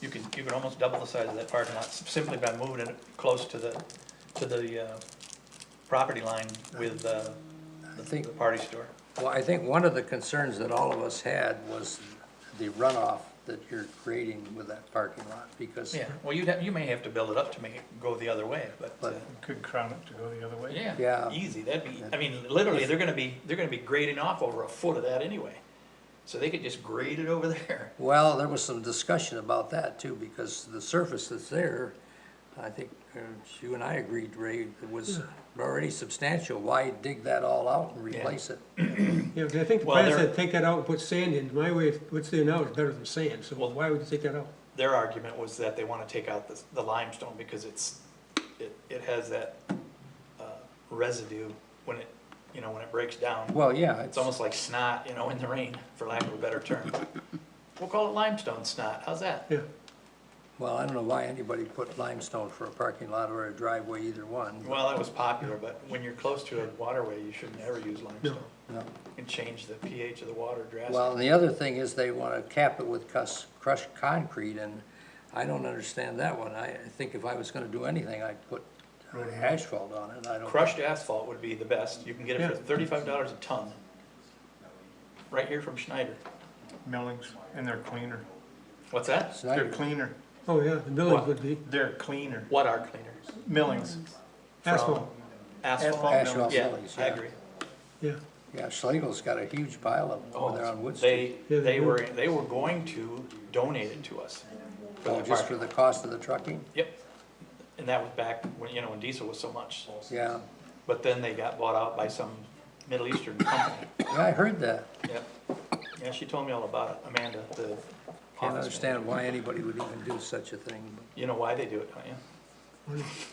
you could almost double the size of that parking lot simply by moving it close to the, to the, uh, property line with, uh, I the, think- the party store. Well, I think one of the concerns that all of us had was the runoff that you're creating with that parking lot, because, Yeah, well, you'd have, you may have to build it up to make it go the other way, but, uh, But- Could crown it to go the other way. yeah. Yeah. Easy, that'd be, I mean, literally, they're gonna be, they're gonna be grading off over a foot of that anyway. So they could just grade it over there. well, there was some discussion about that too, because the surface that's there, I think uh, you and I agreed, Ray, it was already substantial, why dig that all out and replace it? Yeah, 'cause I think the Well, plan there- said take that out and put sand in. My way, of- what's there now is better than sand, so Well- why would you take that out? Their argument was that they wanna take out the, the limestone because it's, it, it has that, uh, residue when it, you know, when it breaks down. Well, yeah, It's it's, almost like snot, you know, in the rain, for lack of a better term. We'll call it limestone snot, how's that? Yeah, well, I don't know why anybody put limestone for a parking lot or a driveway, either one. Well, that was popular, but when you're close to a waterway, you should never use limestone. No. And change the pH of the water drastically. Well, and the other thing is they want to cap it with cus- crushed concrete, and I don't understand that one. I I think if I was going to do anything, I'd put asphalt on it. I don't. Crushed asphalt would be the best, you can get it for Yeah. thirty-five dollars a ton. Right here from Schneider. Millings, and they're cleaner. What's that? It's not They're even- cleaner. oh yeah, the buildings would be They're cleaner. What are cleaners? Millings. asphalt, Asphalt? Asphalt. Asphalt Yeah, buildings, I yeah. agree. yeah. Yeah, Schlegel's got a huge pile of them over there on Oh, Wood Street. they, Yeah, they they do. were, they were going to donate it to us. for Oh, that just park. for the cost of the trucking? Yep, and that was back when, you know, when diesel was so much, Yeah, but then they got bought out by some Middle Eastern company, yeah, I heard that. yep. Yeah, she told me all about it, Amanda, the office Can't manager. understand why anybody would even do such a thing. You know why they do it, don't you?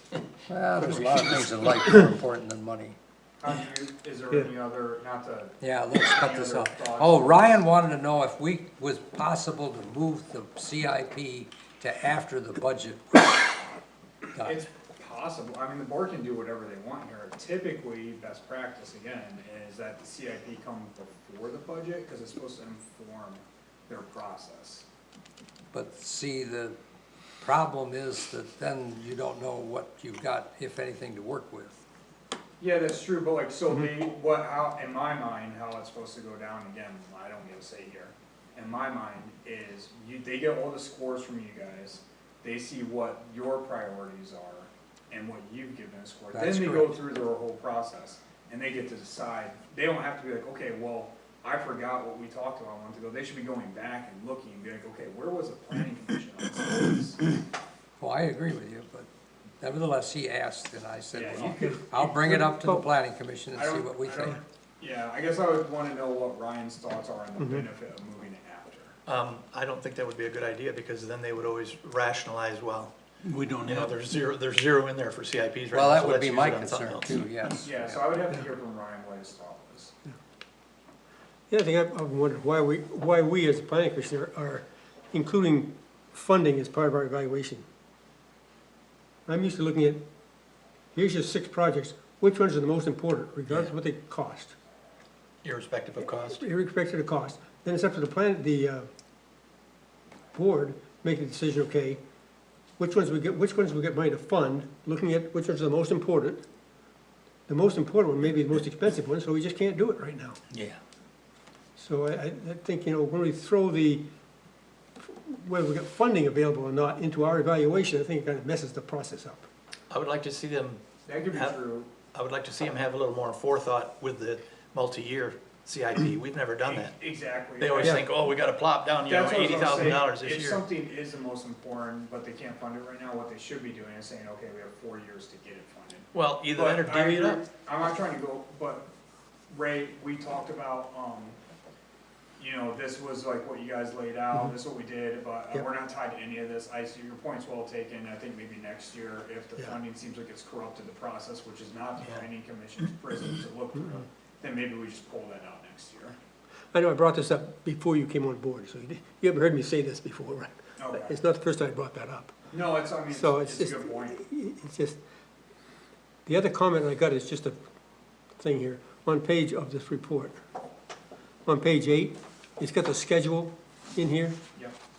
but- Well, there's a lot of things in life more important than money. Um, do you- Is there any other, not to, Yeah, let's cut this off. Any other thoughts? Oh, Ryan wanted to know if we, was possible to move the CIP to after the budget. Done. it's possible, I mean, the board can do whatever they want here. Typically, best practice again, is that the CIP come before the budget, cause it's supposed to inform their process. But see, the problem is that then you don't know what you've got, if anything, to work with. Yeah, that's true, but like, so Mm-hmm. they, what, how, in my mind, how it's supposed to go down, again, I don't get a say here. In my mind is, you, they get all the scores from you guys, they see what your priorities are and what you've given a score. Then That's they go correct. through their whole process and they get to decide, they don't have to be like, okay, well, I forgot what we talked about a month ago, they should be going back and looking and be like, okay, where was the planning commission on this? Well, I agree with you, but nevertheless, he asked, and I said, Yeah, well, you could, I'll bring it up to the planning commission and I see don't- what we I think. don't- Yeah, I guess I would wanna know what Ryan's thoughts are on the benefit of moving it after. Um, I don't think that would be a good idea, because then they would always rationalize, well, We don't you know, have, there's zero, there's zero in there for CIPs right now. Well, that so would let's be use my it on something concern else. too, yes. Yeah, so I would have to hear from Ryan what his thought was. The other thing I've I've wondered, why we, why we as the planning commission are- are including funding as part of our evaluation. I'm used to looking at, here's your six projects, which ones are the most important, regardless of what they cost, Irrespective of cost. irrespective of the cost. Then it's up to the plan, the, uh, board, make the decision, okay, which ones we get, which ones we get money to fund, looking at which ones are the most important. The most important one may be the most expensive one, so we just can't do it right now. Yeah. So I, I I think, you know, when we throw the, whether we got funding available or not into our evaluation, I think it kind of messes the process up. I would like to see them That could be Have- true. I would like to see them have a little more forethought with the multi-year CIP. We've never done that. E, Exactly. They always Yeah. think, oh, we gotta plop down, you know, That's what I was eighty gonna say. thousand dollars this If year. something is the most important, but they can't fund it right now, what they should be doing is saying, okay, we have four years to get it funded. Well, either that or But I divvy it up. agree- I'm not trying to go, but Ray, we talked about, um, you know, this was like what you guys laid Mm-hmm. out, this is what we did, but uh, Yep. we're not tied to any of this. I see your point's well taken. I think maybe next year, if the Yeah. funding seems like it's corrupted the process, which is not the Yeah. Mm-hmm. planning commission's prison to look through, then maybe we just pull that out next year. I know I brought this up before you came on board, so you di- you haven't heard me say this before, right? Okay. It's not the first time I brought that up. No, it's, I mean, it's So it's it's a just, good point. it's just, the other comment I got is just a thing here, on page of this report. On page eight, it's got the schedule in here. Yep.